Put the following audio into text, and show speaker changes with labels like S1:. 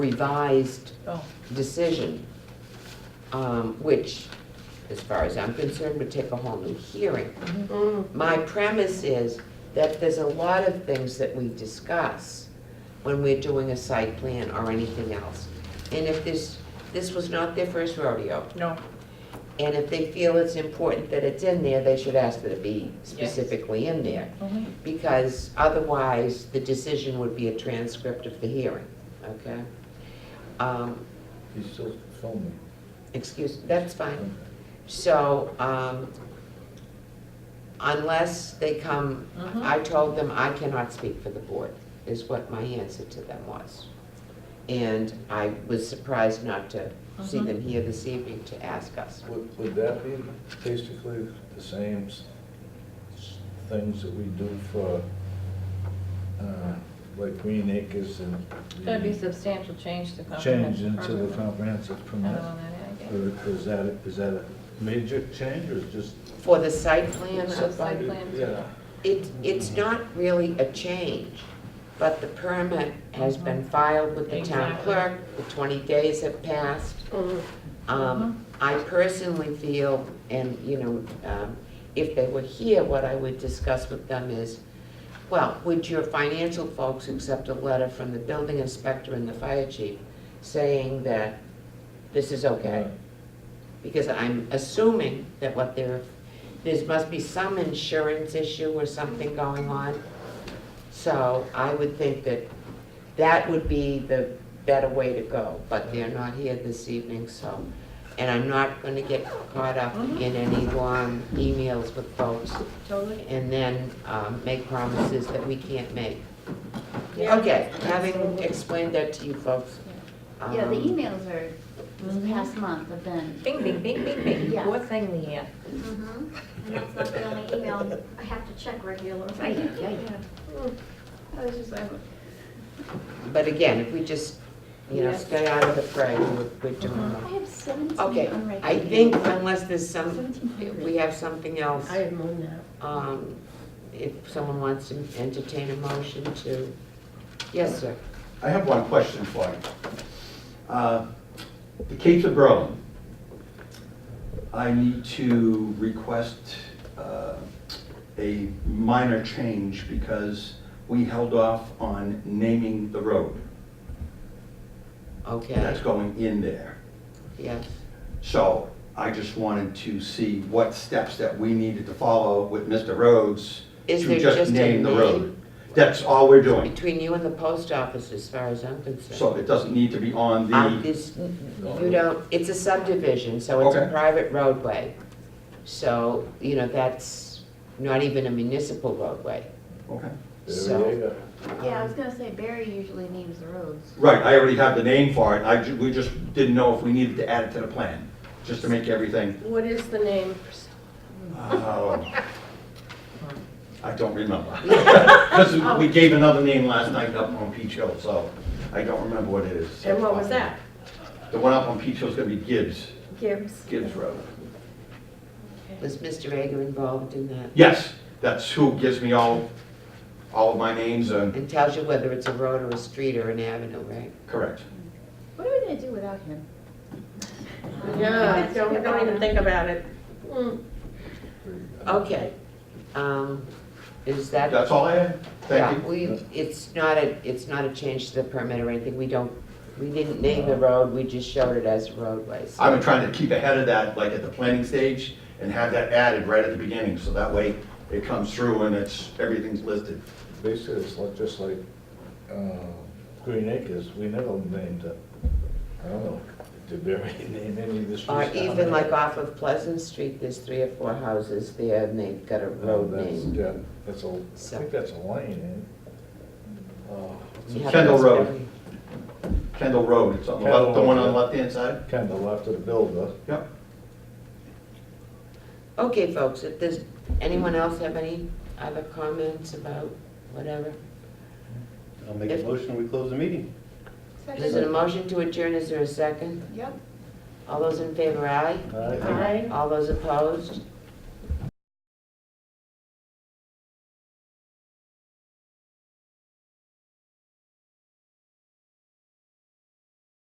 S1: revised
S2: Oh,
S1: decision, um, which, as far as I'm concerned, would take a whole new hearing.
S2: mm-hmm.
S1: My premise is that there's a lot of things that we discuss when we're doing a site plan or anything else. And if this, this was not their first rodeo,
S2: no,
S1: and if they feel it's important that it's in there, they should ask that it be specifically in there.
S3: Mm-hmm.
S2: only,
S1: because otherwise the decision would be a transcript of the hearing, okay? Um,
S4: He's still filming.
S1: Excuse, that's fine. So, um, unless they come,
S2: Mhm.
S1: I told them I cannot speak for the board, is what my answer to them was. And I was surprised not to see
S2: Mhm.
S1: them here this evening to ask us.
S4: Would, would that be basically the same s- things that we do for, uh, like Green Acres and? the
S2: that'd be substantial change to comprehensive.
S4: Change into the
S2: permit.
S4: comprehensive
S2: Another
S4: permit?
S2: one that I get.
S4: Or is that, a- is that a major change or is just?
S1: For the site plan,
S2: So
S1: I
S2: site plan.
S4: Yeah.
S1: It, it's not really a change, but the permit has been filed with the town
S2: Mm-hmm. Exactly.
S1: clerk, the twenty days have passed.
S4: Mm-hmm.
S1: Um, I personally feel, and, you know, um, if they were here, what I would discuss with them is, well, would your financial folks accept a letter from the building inspector and the fire chief saying that this is okay? Because I'm assuming that what there, there must be some insurance issue or something going on. So I would think that that would be the better way to go, but they're not here this evening, so. And I'm not gonna get caught up in any long emails with folks
S2: Totally.
S1: and then um, make promises that we can't make.
S2: Yeah.
S1: Okay, having explained that to you folks.
S5: Yeah,
S1: um,
S5: the emails are, this
S2: Mm-hmm.
S5: past month have been.
S2: Bing, bing, bing, bing, bing,
S5: Yeah.
S2: poor thing, Leanne.
S6: Mhm. And that's not the only email, I have to check regularly.
S3: Mm.
S2: I was just, I'm-
S1: But again, if we just, you know,
S2: Yes.
S1: stay out of the fray, we're- we're doing
S5: I
S1: well.
S5: have seventeen
S1: Okay,
S5: unread
S1: I
S5: emails.
S1: think unless there's some,
S5: Seventeen hundred.
S1: we have something else,
S3: I have more now.
S1: um, if someone wants to entertain a motion to, yes, sir.
S7: I have one question for you. Uh, The Capes of Berlin, I need to request uh, a minor change because we held off on naming the road that's
S1: Okay,
S7: going in there.
S1: yes.
S7: So I just wanted to see what steps that we needed to follow with Mr. Rhodes
S1: Is there
S7: to
S1: just
S7: just
S1: a
S7: name the road.
S1: name?
S7: That's all we're doing.
S1: Between you and the post office, as far as I'm concerned.
S7: So it doesn't need to be on the.
S1: Um, this- You don't, it's a subdivision, so it's a
S7: Okay.
S1: private roadway. So, you know, that's not even a municipal roadway.
S7: Okay.
S1: So-
S5: Yeah, I was gonna say Barry usually names the roads.
S7: Right, I already have the name for it, I, ju- we just didn't know if we needed to add it to the plan, just to make everything,
S3: What is the name?
S7: oh. I don't remember. Because we gave another name last night up on Peach Hill, so I don't remember what it is.
S3: And what was that?
S7: The one up on Peach Hill is gonna be Gibbs,
S3: Gibbs.
S7: Gibbs Road.
S1: Was Mr. Ager involved in that?
S7: Yes, that's who gives me all, all of my names, and,
S1: And tells you whether it's a road or a street or an avenue, right?
S7: correct.
S5: What are we gonna do without him?
S3: Yeah, don't, don't even think about it.
S2: Oh.
S1: Okay. Um, Is that?
S7: That's all I had,
S1: Yeah,
S7: thank you.
S1: we, it's not a, it's not a change to the permit or anything. We don't, we didn't name the road, we just showed it as Uh, a roadway. so-
S7: I've been trying to keep ahead of that, like at the planning stage, and have that added right at the beginning, so that way it comes through and it's, everything's listed.
S4: Basically, it's like, just like, uh, Green Acres, we never named it. I don't know, did Barry name any of the streets?
S1: Or
S4: down there?
S1: even like off of Pleasant Street, there's three or four houses there and they've
S7: Oh,
S1: got a
S4: No,
S1: road
S4: that's,
S1: name.
S4: yeah, that's a, I think that's a lane, eh? Uh,
S1: You have
S7: Kendall
S1: those
S7: Road.
S1: every-
S7: Kendall Road, it's on the left, the one on the
S4: Kendall Road.
S7: left-hand side?
S4: Kind of left of the builder.
S7: Yep.
S1: Okay, folks, if there's, anyone else have any other comments about whatever?
S8: I'll make a
S1: If-
S8: motion, we close the meeting.
S1: Is it a motion to adjourn? Is there a second?
S5: Yep.
S1: All those in favor, aye?
S4: All right.
S3: Aye.
S1: All those opposed?